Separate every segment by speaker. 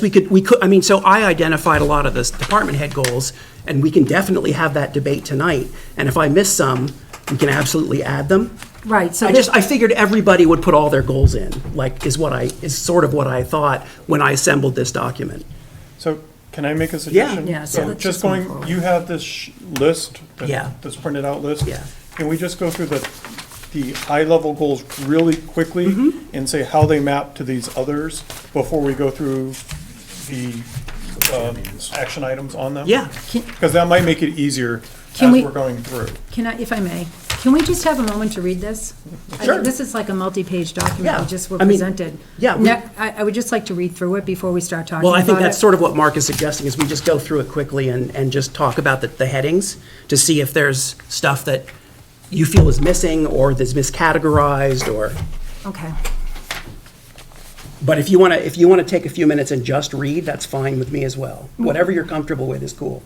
Speaker 1: we could, we could, I mean, so I identified a lot of the department head goals, and we can definitely have that debate tonight. And if I miss some, we can absolutely add them.
Speaker 2: Right, so
Speaker 1: I
Speaker 2: this,
Speaker 1: just, I figured everybody would put all their goals in, like, is what I, is sort of what I thought when I assembled this document.
Speaker 3: So can I make a suggestion?
Speaker 2: Yeah, so let's
Speaker 3: Just
Speaker 2: just move
Speaker 3: going,
Speaker 2: forward.
Speaker 3: you have this sh- list, that-
Speaker 1: Yeah.
Speaker 3: this printed out list.
Speaker 1: Yeah.
Speaker 3: Can we just go through the, the high-level goals really quickly
Speaker 2: Mm-hmm.
Speaker 3: and say how they map to these others before we go through the um, action items on them?
Speaker 1: Yeah.
Speaker 2: Can-
Speaker 3: Because that might make it easier
Speaker 2: Can
Speaker 3: as
Speaker 2: we-
Speaker 3: we're going through.
Speaker 2: can I, if I may, can we just have a moment to read this? I think
Speaker 1: Sure.
Speaker 2: This is like a multi-page document,
Speaker 1: Yeah,
Speaker 2: we just were
Speaker 1: I mean,
Speaker 2: presented.
Speaker 1: yeah, we-
Speaker 2: Now, I, I would just like to read through it before we start talking about it.
Speaker 1: Well, I think that's sort of what Mark is suggesting, is we just go through it quickly and, and just talk about the, the headings to see if there's stuff that you feel is missing or that's miscategorized or,
Speaker 2: Okay,
Speaker 1: but if you want to, if you want to take a few minutes and just read, that's fine with me as well. Whatever you're comfortable with is cool.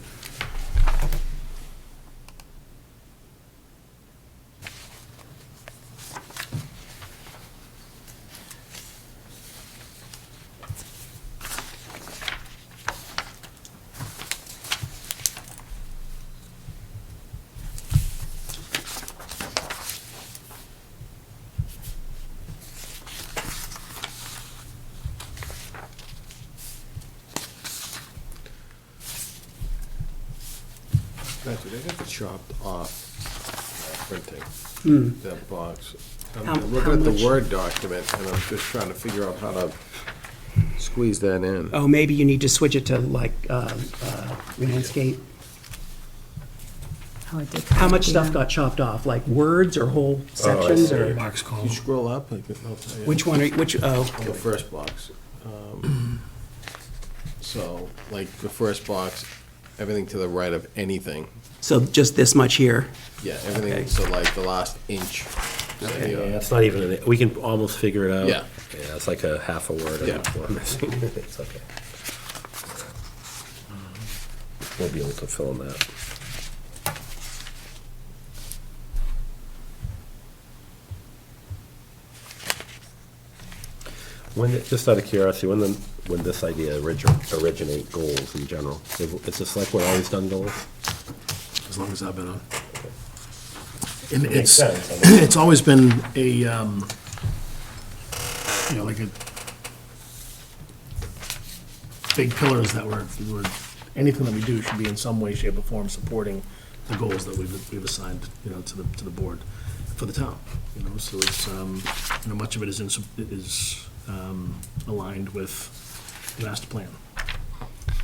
Speaker 4: Matthew, they got the chopped off uh, printing, that box. I'm-
Speaker 1: How-
Speaker 4: I'm
Speaker 1: how
Speaker 4: looking at
Speaker 1: much?
Speaker 4: the Word document, and I'm just trying to figure out how to squeeze that in.
Speaker 1: Oh, maybe you need to switch it to like uh, uh, landscape.
Speaker 2: how it did.
Speaker 1: How much stuff
Speaker 2: Yeah.
Speaker 1: got chopped off, like words or whole sections or?
Speaker 4: Can you scroll up? I could- no, I-
Speaker 1: Which one, are you- which, oh,
Speaker 4: The first box. Um, So, like, the first box, everything to the right of anything.
Speaker 1: so just this much here?
Speaker 4: Yeah,
Speaker 1: Okay.
Speaker 4: everything, so like the last inch. so, you know,
Speaker 5: Yeah, it's not even, we can almost figure it out.
Speaker 4: Yeah.
Speaker 5: Yeah, it's like a half a word.
Speaker 4: Yeah.
Speaker 5: or more missing. It's okay. We'll be able to fill in that. When, it- just out of curiosity, when the, when this idea origi- originate goals in general, is this like what always done goals?
Speaker 6: as long as I've been on. And
Speaker 5: makes
Speaker 6: it's,
Speaker 5: sense, I mean.
Speaker 6: it's always been a, um, you know, like a, big pillars that were, were, anything that we do should be in some way, shape, or form supporting the goals that we've, we've assigned, you know, to the, to the board for the town, you know, so it's, um, you know, much of it is in, sup- is, um, aligned with the master plan.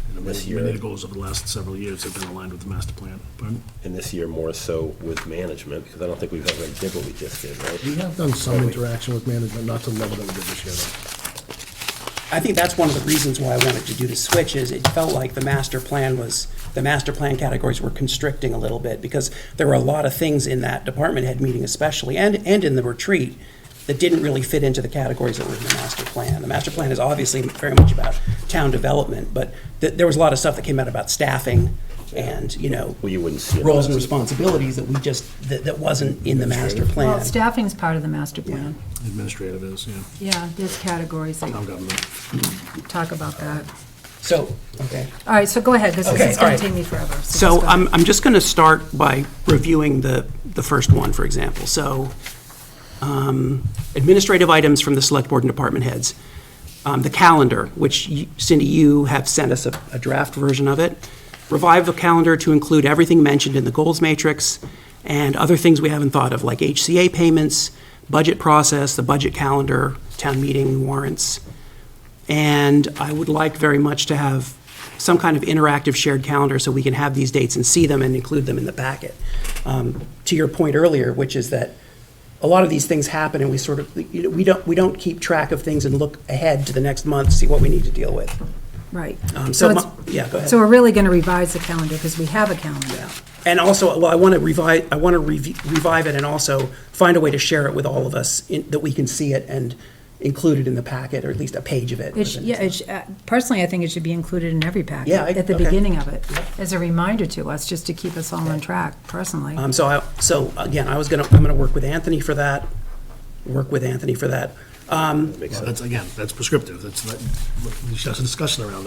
Speaker 6: You know,
Speaker 5: This
Speaker 6: many- Many
Speaker 5: year-
Speaker 6: of the goals over the last several years have been aligned with the master plan, Pardon?
Speaker 5: And this year more so with management, because I don't think we've ever did what we just did, right?
Speaker 6: We have done some interaction with management, not to the level that we did this year, though.
Speaker 1: I think that's one of the reasons why I wanted to do the switch is it felt like the master plan was, the master plan categories were constricting a little bit because there were a lot of things in that department head meeting especially, and, and in the retreat, that didn't really fit into the categories that were in the master plan. The master plan is obviously very much about town development, but th- there was a lot of stuff that came out about staffing and, you know,
Speaker 5: Well, you wouldn't see it.
Speaker 1: roles and responsibilities that we just, that, that wasn't in the master plan.
Speaker 2: Well, staffing's part of the master plan.
Speaker 6: Administrative is, yeah,
Speaker 2: Yeah, there's categories
Speaker 6: town
Speaker 2: that
Speaker 6: government.
Speaker 2: talk about that.
Speaker 1: So, okay.
Speaker 2: All right, so go ahead, this is,
Speaker 1: Okay,
Speaker 2: it's gonna
Speaker 1: all right.
Speaker 2: take me forever. just
Speaker 1: So
Speaker 2: go
Speaker 1: I'm,
Speaker 2: ahead.
Speaker 1: I'm just going to start by reviewing the, the first one, for example. So um, administrative items from the select board and department heads. Um, The calendar, which you- Cindy, you have sent us a a draft version of it. Revive the calendar to include everything mentioned in the goals matrix and other things we haven't thought of, like HCA payments, budget process, the budget calendar, town meeting warrants. And I would like very much to have some kind of interactive shared calendar so we can have these dates and see them and include them in the packet. Um, To your point earlier, which is that a lot of these things happen and we sort of, you know, we don't, we don't keep track of things and look ahead to the next month, see what we need to deal with.
Speaker 2: Right.
Speaker 1: Um, So,
Speaker 2: it's-
Speaker 1: my- yeah, go ahead.
Speaker 2: So we're really gonna revise the calendar, because we have a calendar.
Speaker 1: And also, well, I want to revive, I want to revive it and also find a way to share it with all of us in- that we can see it and include it in the packet, or at least a page of it.
Speaker 2: It sh- Yeah, it sh- uh, personally, I think it should be included in every packet.
Speaker 1: Yeah, I-
Speaker 2: At the
Speaker 1: okay.
Speaker 2: beginning of it, as a reminder to us, just to keep us all on track,
Speaker 1: Uh,
Speaker 2: personally.
Speaker 1: Um, so I, so again, I was gonna, I'm gonna work with Anthony for that, work with Anthony for that.
Speaker 6: That's, again, that's prescriptive, that's, not- there's just a discussion around that.